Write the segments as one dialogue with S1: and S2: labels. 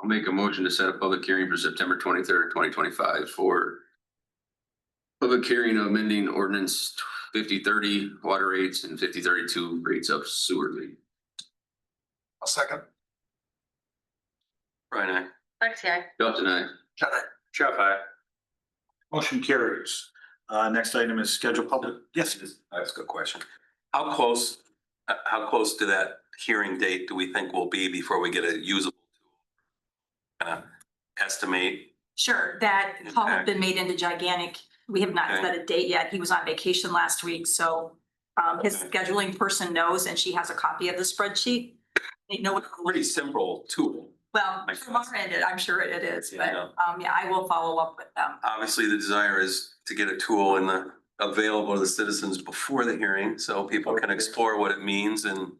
S1: I'll make a motion to set a public hearing for September twenty-third, twenty twenty-five for public hearing of amending ordinance fifty thirty water rates and fifty thirty-two rates of sewer rate.
S2: I'll second.
S1: Brian, I,
S3: Lexi, I.
S1: Dalton, I,
S2: Can I?
S4: Jeff, I.
S5: Motion carries. Uh, next item is schedule public, yes,
S4: That's a good question. How close, uh, how close to that hearing date do we think we'll be before we get a usable? tool? Uh, estimate,
S6: Sure, that call had been made into gigantic. We have not
S4: Okay.
S6: set a date yet. He was on vacation last week, so um, his
S4: Okay.
S6: scheduling person knows and she has a copy of the spreadsheet. They know what,
S4: pretty simple tool.
S6: well,
S4: Makes
S6: from our
S4: sense.
S6: end, I'm sure it is,
S4: Yeah, I
S6: but
S4: know.
S6: um, yeah, I will follow up with them.
S4: Obviously, the desire is to get a tool in the, available to the citizens before the hearing, so people can explore what it means and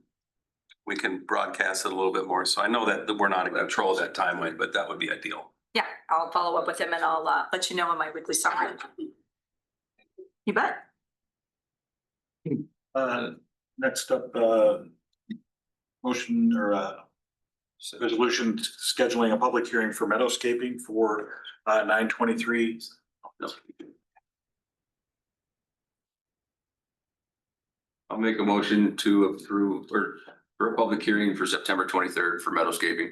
S4: we can broadcast it a little bit more. So I know that that we're not in control of that timeline, but that would be ideal.
S6: Yeah, I'll follow up with him and I'll uh, let you know in my weekly summary. You bet.
S5: uh, next up, uh. Motion or uh. Resolution scheduling a public hearing for meadowscaping for uh nine twenty-three.
S1: I'll make a motion to approve or for a public hearing for September twenty-third for meadowscaping.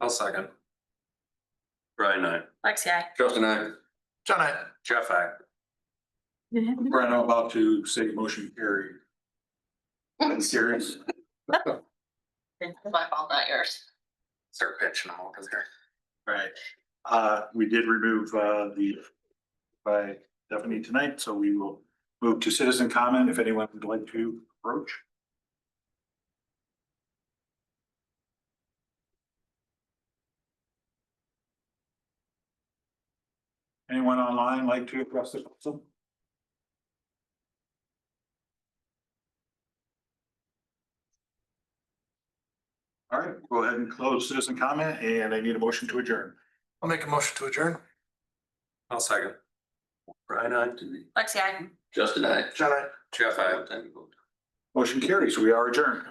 S4: I'll second. Brian, I.
S3: Lexi, I.
S1: Dalton, I,
S2: Can I?
S4: Jeff, I.
S5: Brian, I'm about to say motion carried. Serious.
S3: Hmm. It's my fault, not yours.
S4: Start pitching them over there.
S5: Right. Uh, we did remove, uh, the, by Stephanie tonight, so we will move to citizen comment if anyone would like to approach. Anyone online like to address the council? All right, go ahead and close citizen comment and I need a motion to adjourn.
S2: I'll make a motion to adjourn.
S4: I'll second. Brian, I.
S3: Lexi, I.
S1: Justin, I.
S2: Can I?
S4: Jeff, I.
S5: Motion carries. We are adjourned.